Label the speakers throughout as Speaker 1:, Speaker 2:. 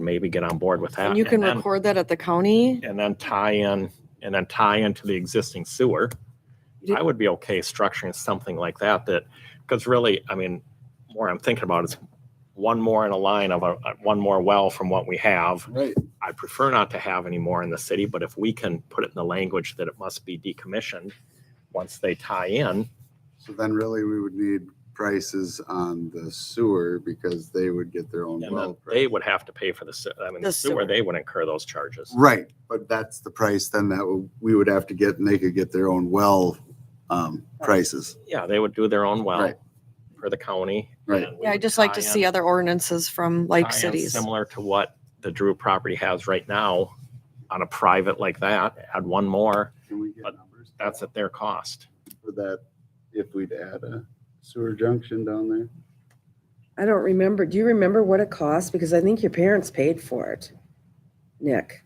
Speaker 1: maybe get on board with that.
Speaker 2: And you can
Speaker 1: then-
Speaker 2: record that at the county?
Speaker 1: And then tie in, and then tie into the existing sewer.
Speaker 2: You
Speaker 1: I would be okay structuring something like that, that, because really, I mean, more I'm thinking about is one more in a line of a, one more well from what we have.
Speaker 3: Right.
Speaker 1: I prefer not to have any more in the city, but if we can put it in the language that it must be decommissioned once they tie in,
Speaker 3: So then really we would need prices on the sewer because they would get their
Speaker 1: and
Speaker 3: own
Speaker 1: then
Speaker 3: well.
Speaker 1: they would have to pay for the, se- I mean,
Speaker 2: The
Speaker 1: the sewer,
Speaker 2: sewer.
Speaker 1: they would incur those charges.
Speaker 3: Right, but that's the price then that w- we would have to get and they could get their own well um, prices.
Speaker 1: Yeah, they would do their own well
Speaker 3: Right.
Speaker 1: for the county.
Speaker 3: Right.
Speaker 1: and we
Speaker 2: Yeah, I'd
Speaker 1: would
Speaker 2: just like to
Speaker 1: tie in-
Speaker 2: see other ordinances from like
Speaker 1: tie in
Speaker 2: cities.
Speaker 1: Similar to what the Drew property has right now on a private like that, add one more,
Speaker 3: Can we get
Speaker 1: But
Speaker 3: numbers?
Speaker 1: that's at their cost.
Speaker 3: For that, if we'd add a sewer junction down there.
Speaker 4: I don't remember. Do you remember what it cost? Because I think your parents paid for it, Nick.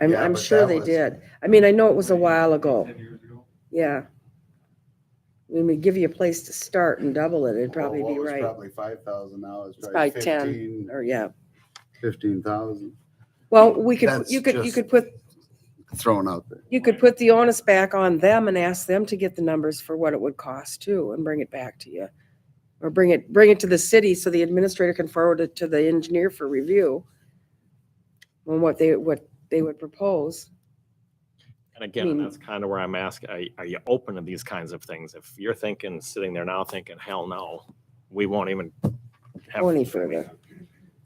Speaker 4: I'm,
Speaker 3: Yeah,
Speaker 4: I'm
Speaker 3: but
Speaker 4: sure
Speaker 3: that
Speaker 4: they
Speaker 3: was-
Speaker 4: did. I mean, I know it was a while ago. Yeah. When we give you a place to start and double it, it'd probably
Speaker 3: Oh, Well, what
Speaker 4: be
Speaker 3: was
Speaker 4: right.
Speaker 3: Probably five thousand now is
Speaker 4: It's
Speaker 3: probably
Speaker 4: probably 10.
Speaker 3: fifteen,
Speaker 4: Or, yeah.
Speaker 3: fifteen thousand
Speaker 4: Well, we could,
Speaker 3: That's
Speaker 4: you could, you
Speaker 3: just-
Speaker 4: could put,
Speaker 3: thrown out there.
Speaker 4: you could put the onus back on them and ask them to get the numbers for what it would cost too and bring it back to you. Or bring it, bring it to the city so the administrator can forward it to the engineer for review. On what they, what they would propose.
Speaker 1: And again,
Speaker 4: mean-
Speaker 1: that's kind of where I'm asking, are, are you open to these kinds of things? If you're thinking, sitting there now thinking, hell no, we won't even have.
Speaker 4: Go any further.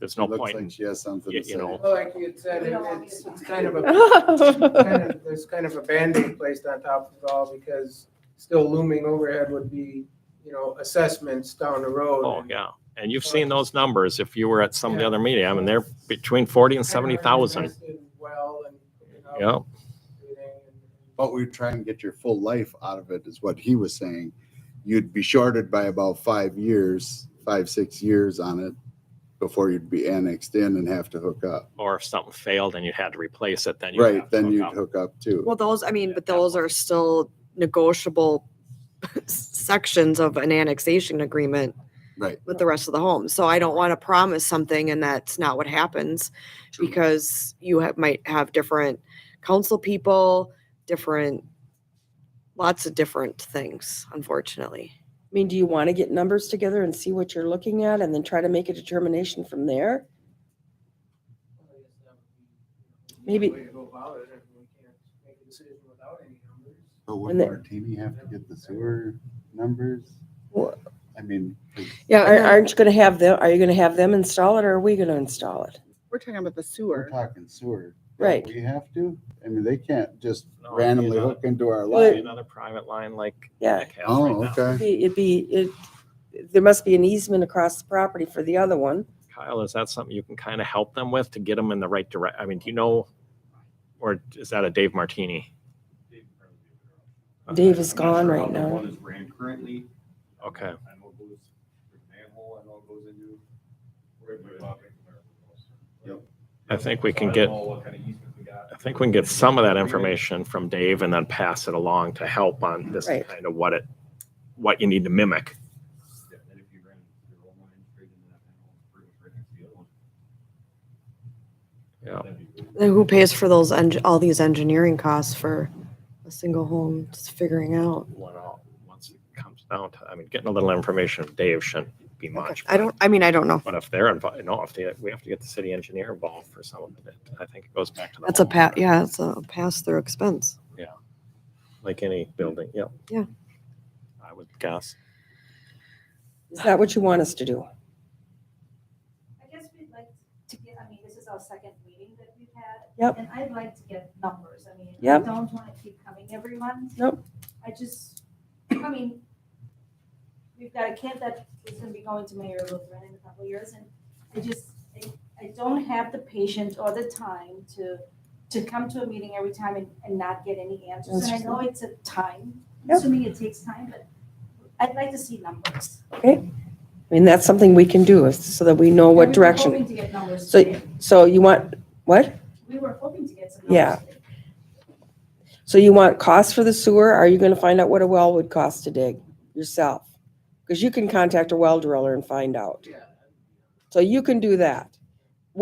Speaker 1: There's no
Speaker 3: Looks
Speaker 1: point
Speaker 3: like
Speaker 1: in,
Speaker 3: she has something
Speaker 1: you-
Speaker 3: to
Speaker 1: you
Speaker 3: say.
Speaker 1: know.
Speaker 5: Well, Like you had said, it's, it's kind of a,
Speaker 4: Well,
Speaker 5: kind of, there's kind of a Band-Aid placed on top of it all because still looming overhead would be, you know, assessments down the road.
Speaker 1: oh, yeah. And you've seen those numbers if you were at some of the
Speaker 5: Yeah.
Speaker 1: other media. I mean, they're between forty and seventy thousand.
Speaker 5: Well, and, you know.
Speaker 1: Yeah.
Speaker 5: everything.
Speaker 3: But we try and get your full life out of it is what he was saying. You'd be shorted by about five years, five, six years on it before you'd be annexed in and have to hook up.
Speaker 1: Or if something failed and you had to replace it, then you.
Speaker 3: Right, then you'd hook up too.
Speaker 2: those, I mean, but those are still negotiable sections of an annexation agreement
Speaker 3: Right.
Speaker 2: with the rest of the home. So I don't want to promise something and that's not what happens
Speaker 3: True.
Speaker 2: because you have, might have different council people, different, lots of different things, unfortunately.
Speaker 4: I mean, do you want to get numbers together and see what you're looking at and then try to make a determination from there? Maybe-
Speaker 5: Way to go about it if we can't make a decision without any numbers.
Speaker 3: But
Speaker 4: And the-
Speaker 3: Martini have to get the sewer numbers?
Speaker 4: Well-
Speaker 3: I mean,
Speaker 2: Yeah.
Speaker 4: Aren't, aren't you going to have them, are you going to have them install it or are we going to install it?
Speaker 6: We're talking about the
Speaker 3: we're
Speaker 6: sewer.
Speaker 3: talking sewer. Don't
Speaker 4: Right.
Speaker 3: We have to? I mean, they can't just
Speaker 1: No, it'd be
Speaker 3: randomly
Speaker 1: another-
Speaker 3: hook into our
Speaker 4: Well,
Speaker 3: line.
Speaker 4: it-
Speaker 1: Another private line like.
Speaker 4: Yeah.
Speaker 1: Nick has right
Speaker 3: Oh,
Speaker 1: now.
Speaker 3: okay.
Speaker 4: Be- It'd be, it, there must be an easement across the property for the other one.
Speaker 1: Kyle, is that something you can kind of help them with to get them in the right direction? I mean, do you know, or is that a Dave Martini?
Speaker 4: Dave is
Speaker 7: I'm not
Speaker 4: gone
Speaker 7: sure
Speaker 4: right
Speaker 7: how the
Speaker 4: now.
Speaker 7: One is ran currently.
Speaker 1: Okay,
Speaker 7: I know it goes through the manhole, I know it goes into. Yep.
Speaker 1: I think we
Speaker 7: So
Speaker 1: can
Speaker 7: I don't
Speaker 1: get-
Speaker 7: know what kind of easement we got.
Speaker 1: I think we can get some of that information from Dave and then pass it along to help on this
Speaker 4: Right.
Speaker 1: kind of what it, what you need to mimic.
Speaker 7: Yeah, then if you ran your own line straight into that manhole, it's pretty much right next to the other one.
Speaker 1: Yeah.
Speaker 7: That'd be good.
Speaker 2: Then who pays for those, eng- all these engineering costs for a single home, just figuring out?
Speaker 1: When all- Once it comes down to, I mean, getting a little information from Dave shouldn't be much.
Speaker 2: I don't, I mean, I don't know.
Speaker 1: But if they're involved, no, if they, we have to get the city engineer involved for some of it, I think it goes back to. the
Speaker 2: That's a
Speaker 1: homeowner,
Speaker 2: pa, yeah, it's a pass-through expense.
Speaker 1: Like any building, yeah.
Speaker 2: Yeah.
Speaker 1: I would guess.
Speaker 4: Is that what you want us to do?
Speaker 8: I guess we'd like to get, I mean, this is our second meeting that we've had.
Speaker 4: Yep.
Speaker 8: And I'd like to get numbers. I mean, I
Speaker 4: Yep.
Speaker 8: don't want to keep coming every month.
Speaker 4: Nope.
Speaker 8: I just, I mean, we've got a kid that is going to be going to Mayor Lutheran in a couple of years. And I just, I- I don't have the patience or the time to, to come to a meeting every time and, and not get any answers. And I know it's a time,
Speaker 4: Yep.
Speaker 8: assuming it takes time, but I'd like to see numbers.
Speaker 4: I mean, that's something we can do is- so that we know what
Speaker 8: And We were
Speaker 4: direction.
Speaker 8: hoping to get numbers
Speaker 4: So-
Speaker 8: today.
Speaker 4: So you want, what?
Speaker 8: We were hoping to get some
Speaker 4: Yeah.
Speaker 8: numbers today.
Speaker 4: So you want costs for the sewer? Are you going to find out what a well would cost to dig yourself? Because you can contact a well driller and find out.
Speaker 5: Yeah.
Speaker 4: So you can do that.